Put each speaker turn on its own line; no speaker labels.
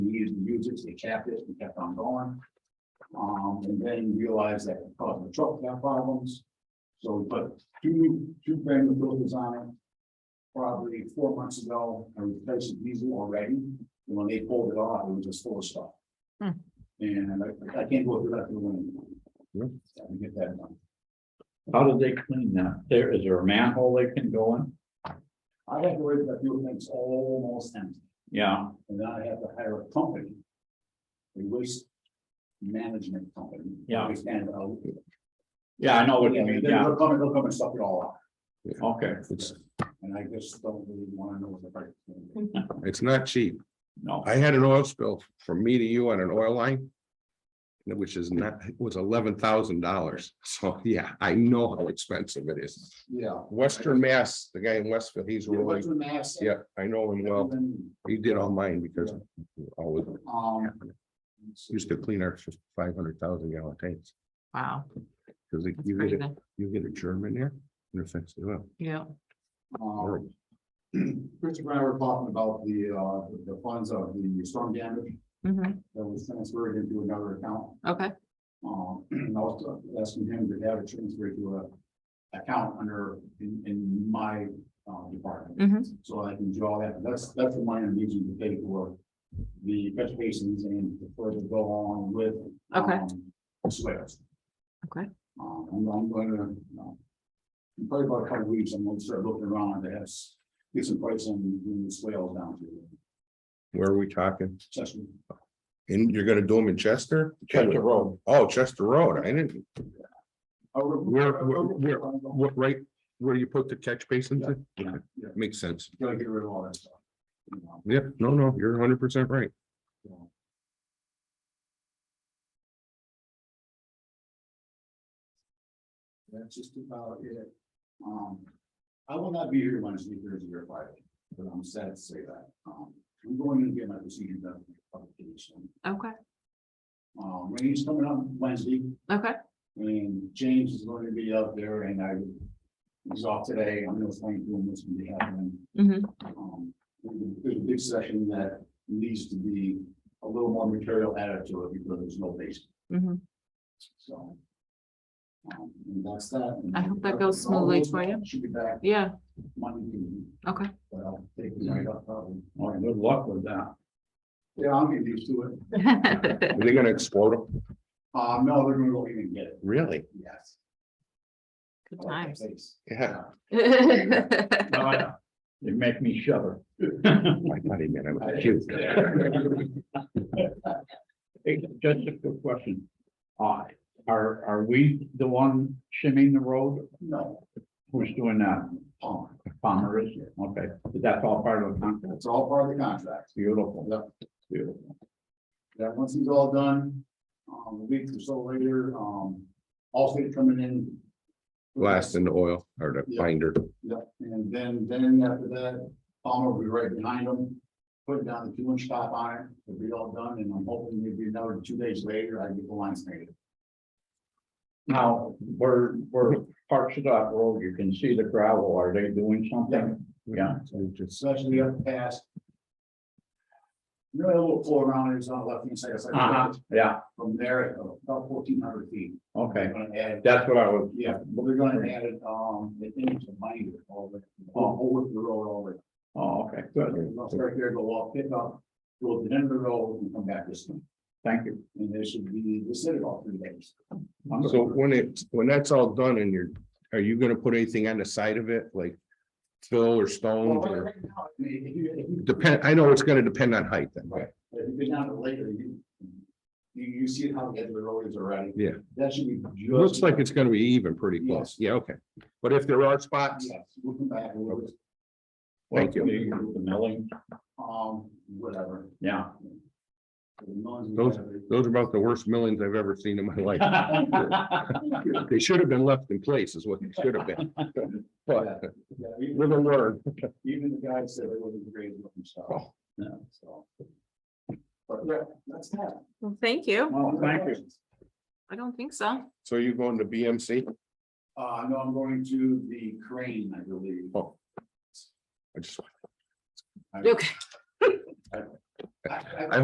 agents, they capped it, we kept on going. Um, and then realized that it caused the truck to have problems. So we put two, two brand new filters on it. Probably four months ago, I replaced the diesel already, and when they pulled it off, it was just full of stuff.
Hmm.
And I, I can't go through that.
Yeah.
in the We get that done.
How do they clean that? There, is there a manhole they can go in?
I have to worry about doing things almost empty.
Yeah,
And then I have to hire a company. A waste management company.
Yeah.
Waste And, uh,
yeah, I know what you
yeah,
mean, yeah,
they'll come, they'll come and suck it all
okay,
It's,
up, and I just don't really wanna know what the price. is gonna be.
it's not cheap.
no,
I had an oil spill from me to you on an oil line. Which is not, was eleven thousand dollars. So, yeah, I know how expensive it is.
Yeah.
Western Mass, the guy in Westfield, he's
Yeah,
really,
what's the mass?
yeah, I know him well. He did all mine because always
Um.
used to clean our five hundred thousand gallon tanks.
Wow.
Cause
that's
you get, a-
crazy.
you get a germ in there, and it affects the oil.
Yeah,
um, Christopher and I were talking about the, uh, the funds of the storm damage
mhm,
that was transferred into another account.
okay,
Um, I was asking him to have it transferred to a account under, in, in my, uh, department.
Mhm.
So I can draw that, that's, that's the money I'm using to pay for the vegetations and the further go along with.
Okay.
um, Swears.
Okay.
Um, I'm, I'm gonna, um, in probably about a couple weeks, I'm gonna start looking around, to have s- get some price on doing the swales down to
Where are we talking?
Chester.
And you're gonna do them in Chester?
Chester Road.
Oh, Chester Road. I didn't,
Oh,
Where- where- where-
Gotta
what, right, where you put the catch basins? in?
Yeah, yeah.
Makes sense.
get rid of all that stuff. you know.
Yep, no, no, you're hundred percent right.
That's just about it. Um, I will not be here Wednesday, Thursday, or Friday, but I'm sad to say that. Um, I'm going to get my procedure done for publication.
okay,
Um, Randy's coming up Wednesday,
okay,
and James is going to be up there, and I was off today. I'm gonna find doing what's gonna be happening.
mhm,
Um, there's a big session that needs to be a little more material added to it because there's no base,
mhm.
so. Um, and that's that.
I hope that goes smoothly for you.
Should be back
Yeah,
Monday, evening,
okay,
but I'll take the night off probably.
well, good luck with that.
Yeah, I'll get used to it.
Are they gonna explode them?
Um, no, they're gonna go in and get it,
Really?
yes.
good
I like that
times.
face.
Yeah.
Oh, yeah. They make me shiver.
I thought he meant
I-
I'm cute.
Hey, Just a quick question. Uh, are, are we the one shimming the road?
No,
Who's doing that? Oh,
Palmer,
Palmer is, okay, that's all part of the contract.
that's all part of the contract.
Beautiful.
Yep.
Beautiful.
That once he's all done, um, a week or so later, um, Allstate coming in.
Blast in the oil or the
Yeah.
binder.
Yep, and then, then after that, Palmer will be right behind him, putting down the two inch top iron, it'll be all done, and I'm hoping maybe another two days later, I get the lines made.
Now, where, where parts of that road, you can see the gravel, are they doing something? Yeah.
So Just
especially up past. You know, that little floor around it's on the left hand side, it's
Uh-huh,
like
yeah,
from there, about fourteen hundred feet.
okay,
They're gonna add,
that's what I was,
yeah, but they're gonna add it, um, the image of mine, all the, all over the road, all the.
oh, okay, good,
They'll start there, go off, pick up, go to the end of the road and come back this way,
thank you.
and they should be, they said it all three days.
So when it, when that's all done and you're, are you gonna put anything on the side of it, like? Fill or
Well,
stones or
right now, I mean, if you- if you-
depend, I know it's gonna depend on height then, right?
If you go down to later, you, you, you see how the edge of the road is already.
Yeah.
That should be just.
Looks like it's gonna be even pretty close.
Yes.
Yeah, okay. But if there are spots,
Yes, we'll come back, we'll, just,
Thank you.
The milling,
um, whatever.
yeah.
The noise we
Those-
have,
those are about the worst millions I've ever seen in my life.
Well,
They should have been left in place is what they should have been. But
yeah, even-
with a word,
Even the guy said it wasn't great looking stuff,
oh,
yeah, so. But yeah, that's that.
Well, thank you.
thank you.
I don't think so.
so you're going to BMC?
Uh, no, I'm going to the crane, I believe.
Oh. I just
I-
Okay.
I- I-